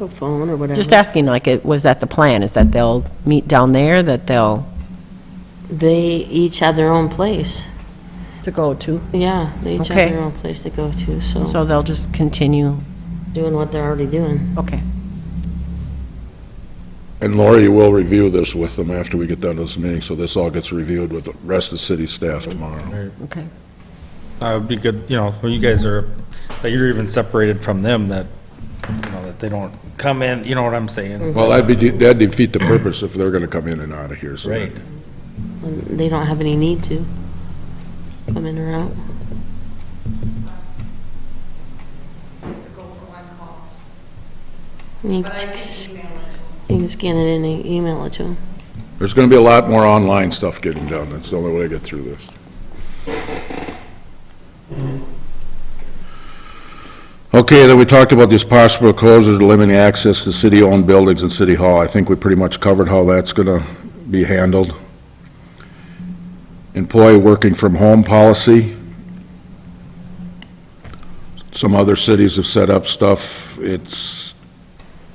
Or phone or whatever. Just asking, like, it was that the plan, is that they'll meet down there, that they'll... They each had their own place. To go to. Yeah, they each Okay. had their own place to go to, so So they'll just continue, doing what they're already doing. okay. And Laura, you will review this with them after we get done with this meeting, so this all gets reviewed with the rest of the city staff tomorrow. Okay. Uh, it'd be good, you know, when you guys are, that you're even separated from them, that, you know, that they don't come in, you know what I'm saying? Well, that'd be, de- that'd defeat the purpose if they're gonna come in and out of here, Mm-hmm. so. that- Right. And They don't have any need to come in or out. You can s- you can scan it in and email it to them. There's gonna be a lot more online stuff getting done, that's the only way to get through this. Okay, then we talked about these possible closures, limiting access to city-owned buildings and city hall. I think we pretty much covered how that's gonna be handled. Employee working from home policy. Some other cities have set up stuff, it's,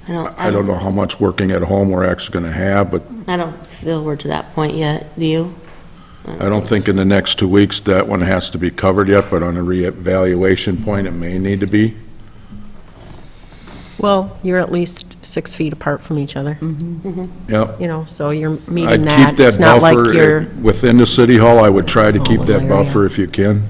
I don't, I don't know how much working at home we're actually gonna have, but I don't feel we're to that point yet, do you? I don't think in the next two weeks that one has to be covered yet, but on a reevaluation point, it may need to be. Well, you're at least six feet apart from each other, Yep. you know, so you're I meeting that. keep that It's not like buffer you're, uh, within the city hall. I would try to keep Small that area. buffer if you can.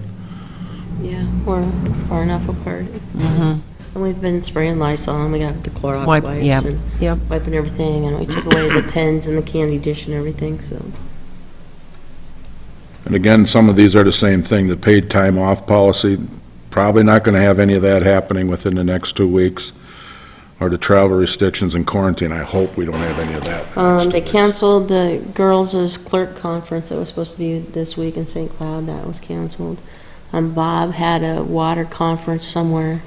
Yeah, we're far enough apart. And we've been spraying Lysol, and we got the Clorox Mm-hmm. Wipe- wipes, yep, and yep. wiping everything, and we took away the pens and the candy dish and everything, so. And again, some of these are the same thing, the paid time off policy, probably not going to have any of that happening within the next two weeks, or the travel restrictions and quarantine. I hope we don't have any of that. in the next Um, two they weeks. canceled the girls' clerk conference that was supposed to be this week in St. Cloud, that was canceled. Um, Bob had a water conference somewhere.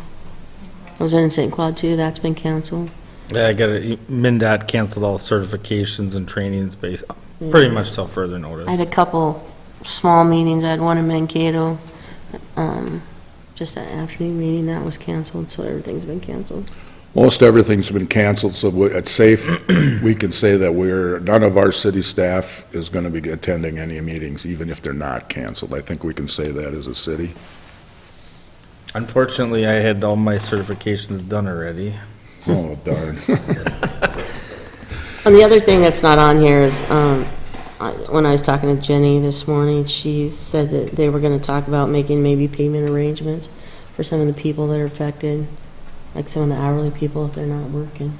It was in St. Cloud too, that's been canceled. Yeah, I got it, MinDOT canceled all certifications and trainings based, pretty much till further notice. I had a couple small meetings, I had one in Mankato, um, just that afternoon meeting, that was canceled, so everything's been canceled. Most everything's been canceled, so we- it's safe, we can say that we're, none of our city staff is going to be attending any meetings, even if they're not canceled. I think we can say that as a city. Unfortunately, I had all my certifications done already. Oh, darn. And the other thing that's not on here is, um, I- when I was talking to Jenny this morning, she said that they were gonna talk about making maybe payment arrangements for some of the people that are affected, like some of the hourly people if they're not working.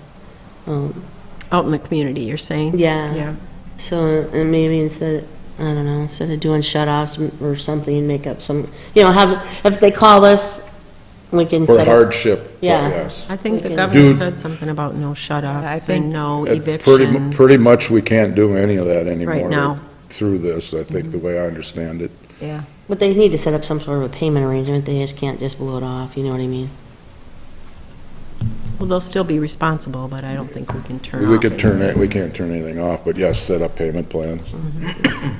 Um, out in the community, you're saying? Yeah, Yeah, so, and maybe instead, I don't know, instead of doing shut-offs or something, make up some, you know, have, if they call us, we can For set up. hardship, Yeah. yes. I think the Okay. governor Dude. said something about no I shut-offs think- and no Uh, Pretty, mu- evictions. pretty much, we can't do any of that anymore. now. Through this, I think, the way I understand it. Yeah. But they need to set up some sort of a payment arrangement, they just can't just blow it off, you know what I mean? Well, they'll still be responsible, but I don't think we can turn off. We could turn anything. it, we can't turn anything off, but yes, set up payment plans. Mm-hmm.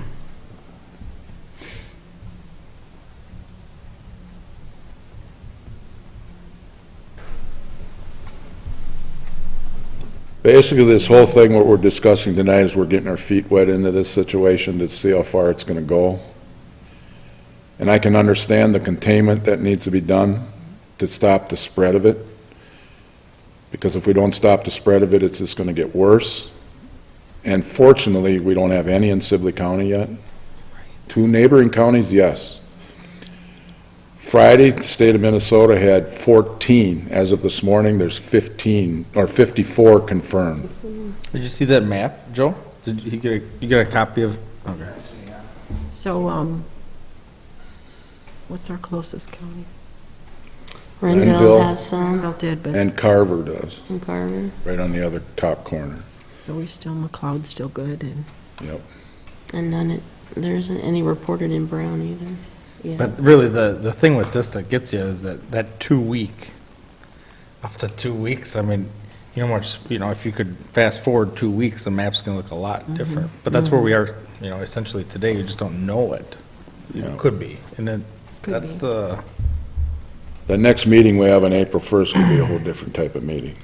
Basically, this whole thing, what we're discussing tonight is we're getting our feet wet into this situation to see how far it's gonna go. And I can understand the containment that needs to be done to stop the spread of it. Because if we don't stop the spread of it, it's just gonna get worse. And fortunately, we don't have any in Sibley County yet. Two neighboring counties, yes. Friday, the state of Minnesota had 14. As of this morning, there's 15, or 54 confirmed. Did you see that map, Joe? Did you you get, a- you got a copy of? Okay. So, um, what's our closest county? Renville Renville. has some, Well, did, but And Carver does, and Carver. right on the other top corner. we're still, McLeod's still good, and And none, it- there isn't any reported in Brown either. Yeah, But really, the, the thing with this that gets you is that, that two week, up to two weeks, I mean, you know, much, you know, if you could fast forward two weeks, the map's gonna look a lot different. But that's where we are, you know, essentially today, you just don't know it. Yeah. It could be, and then, that's the, The next meeting we have on April 1st could be a whole different type of meeting.